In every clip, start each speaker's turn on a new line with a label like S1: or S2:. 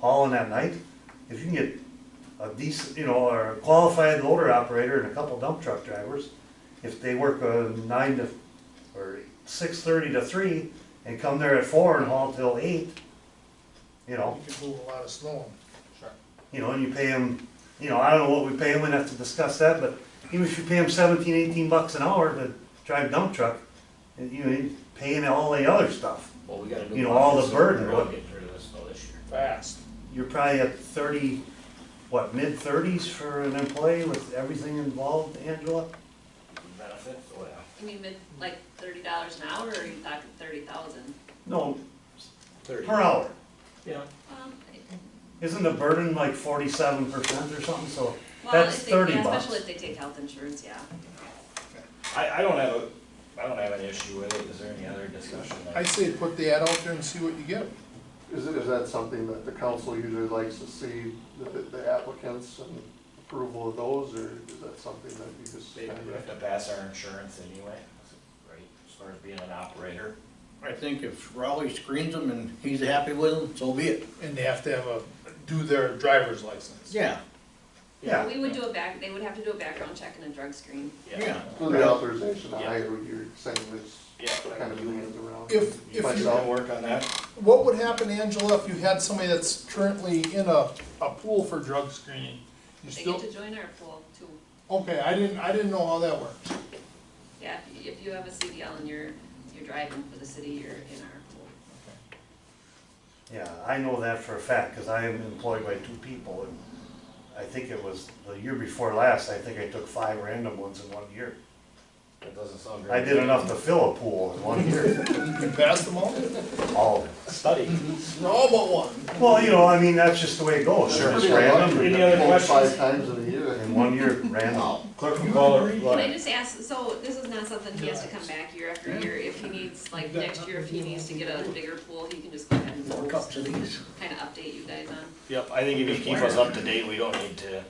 S1: hauling that night, if you can get a decent, you know, or a qualified loader operator and a couple dump truck drivers, if they work uh, nine to, or six thirty to three, and come there at four and haul till eight, you know,
S2: You can move a lot of snow.
S3: Sure.
S1: you know, and you pay them, you know, I don't know what we pay them, we'd have to discuss that, but even if you pay them seventeen, eighteen bucks an hour to drive dump truck, and you know, paying all the other stuff,
S3: Well, we gotta do.
S1: You know, all the
S3: this, so
S1: burden,
S3: We're really
S1: what-
S3: getting rid of this though this year.
S2: Fast.
S1: you're probably at thirty, what, mid thirties for an employee with everything involved, Angela?
S3: Benefit, oh yeah.
S4: You mean mid, like thirty dollars an hour, or are you talking thirty thousand?
S1: No,
S3: Thirty.
S1: per hour.
S3: Yeah.
S1: Isn't the burden like forty-seven percent or something, so
S4: Well,
S1: that's
S4: if they,
S1: thirty
S4: yeah,
S1: bucks.
S4: especially if they take health insurance, yeah.
S3: I, I don't have a, I don't have an issue with it, is there any other discussion? there?
S2: I say put the ad out there and see what you get.
S5: Is, is that something that the council usually likes to see, the, the applicants and approval of those, or is that something that you just
S3: They
S5: kind
S3: would have
S5: of?
S3: to pass our insurance anyway, right, as far as being an operator.
S6: I think if Raleigh screens them and he's happy with them, so be it.
S2: And they have to have a, do their driver's license.
S6: Yeah,
S1: Yeah.
S4: We would do a back, they would have to do a background check and a drug screen.
S6: yeah.
S5: So the authorization to
S3: Yeah.
S5: hire, what you're saying is
S3: Yeah.
S5: kind of hands around.
S2: If, if you,
S3: I'll work on that.
S2: what would happen, Angela, if you had somebody that's currently in a, a pool for drug screening? You
S4: They
S2: still,
S4: get to join our pool too.
S2: okay, I didn't, I didn't know how that worked.
S4: Yeah, if you- if you have a CDL and you're, you're driving for the city, you're in our pool.
S1: Yeah, I know that for a fact, cause I am employed by two people, and I think it was the year before last, I think I took five random ones in one year.
S3: That doesn't sound very.
S1: I did enough to fill a pool in one year,
S2: You passed them all?
S1: all of it.
S3: Study.
S2: No, but one.
S1: Well, you know, I mean, that's just the way it goes,
S3: Sure.
S1: it's
S5: Pretty
S1: random,
S5: unlikely
S3: Any
S5: to
S3: other
S5: vote
S3: questions?
S5: Five times in a year.
S1: in one year, random.
S3: Clerk will call her.
S4: Can I just ask, so this is not something he has to come back year after year, if he needs, like, next year, if he needs to get a bigger pool, he can just go ahead and
S6: Four cups of these.
S4: kind of update you guys on.
S3: Yep, I think if you keep us up to date, we don't need to.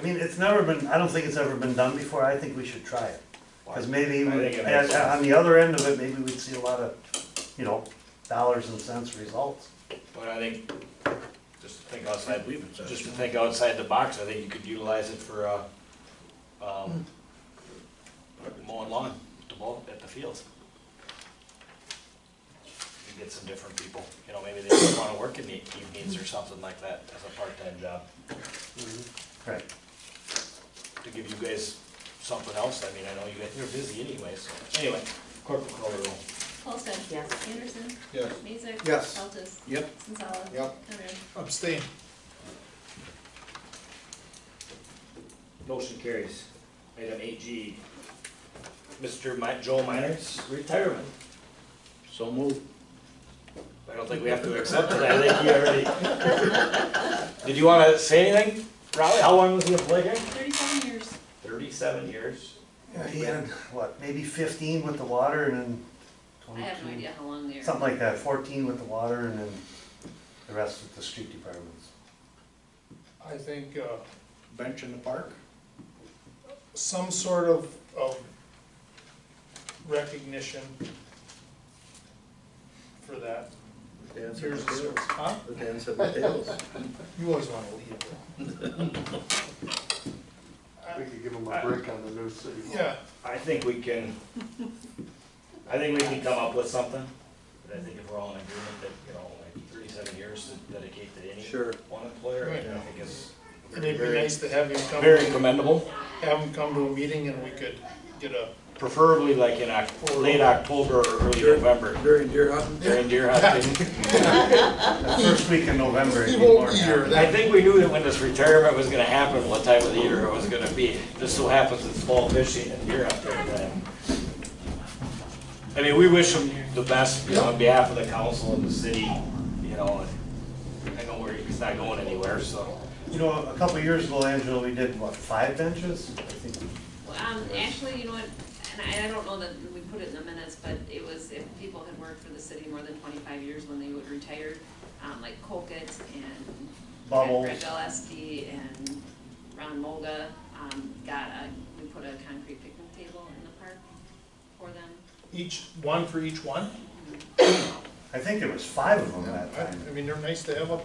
S1: I mean, it's never been, I don't think it's ever been done before, I think we should try it. Cause maybe,
S3: I think it makes
S1: even-
S3: sense.
S1: on the other end of it, maybe we'd see a lot of, you know, dollars and cents results.
S3: But I think, just to think outside,
S6: Leave it, sir.
S3: just to think outside the box, I think you could utilize it for, uh, um, mowing lawn, at the ball, at the fields. You get some different people, you know, maybe they don't wanna work in the evenings or something like that as a part-time job,
S1: Right.
S3: to give you guys something else, I mean, I know you guys, you're busy anyway, so, anyway, clerk will call the roll.
S4: Paulson? Yes. Anderson?
S6: Yes.
S4: Mazik?
S6: Yes.
S4: Feltes?
S6: Yep.
S4: Sensala?
S6: Yep.
S4: Conrad?
S2: Abstain.
S3: Motion carries. Item eight G, Mr. Mi- Joel Miners, retirement.
S6: So move.
S3: I don't think we have to accept it, I think you already. Did you wanna say anything, Riley? How long was he employed here?
S4: Thirty-seven years.
S3: Thirty-seven years.
S1: Yeah, he had, what, maybe fifteen with the water and then
S4: I have no
S1: twenty-two?
S4: idea how long they are.
S1: Something like that, fourteen with the water and then the rest with the street departments.
S2: I think, uh,
S6: Bench in the park?
S2: some sort of, of recognition for that. Here's the service, huh?
S6: The dance at the tails.
S2: You always wanna leave.
S5: We could give them a break on the new city. hall.
S2: Yeah,
S3: I think we can, I think we can come up with something, but I think if we're all in agreement that, you know, like thirty-seven years to dedicate to any
S6: Sure.
S3: one employer, I
S2: Right.
S3: think is
S2: and it'd be
S3: very,
S2: nice to have him come,
S3: very commendable.
S2: have him come to a meeting and we could get a,
S3: Preferably like in Oc- late October or early November,
S6: During deer hunting?
S3: during deer hunting.
S1: The first week in November, it'd
S2: he
S1: be
S2: won't
S1: more
S2: be here
S1: happy.
S3: I
S2: that.
S3: think we knew that when this retirement was gonna happen, what time of the year it was gonna be. Just so happens it's fall fishing and deer out there. but- I mean, we wish him the best, you know, on behalf of the council and the city, you know, and I know where he's not going anywhere, so.
S1: You know, a couple of years ago, Angela, we did, what, five benches? I think
S4: Well, Um, actually, you know what, and I, I don't know that we put it in the minutes, but it was if people had worked for the city more than twenty-five years when they would retire, um, like Colquitt and
S1: Bubbles.
S4: Greg Gillespie and Ron Moga, um, got a, we put a concrete picnic table in the park for them.
S2: Each, one for each one?
S1: I think there was five of them that
S2: I
S1: time.
S2: I mean, they're nice to have up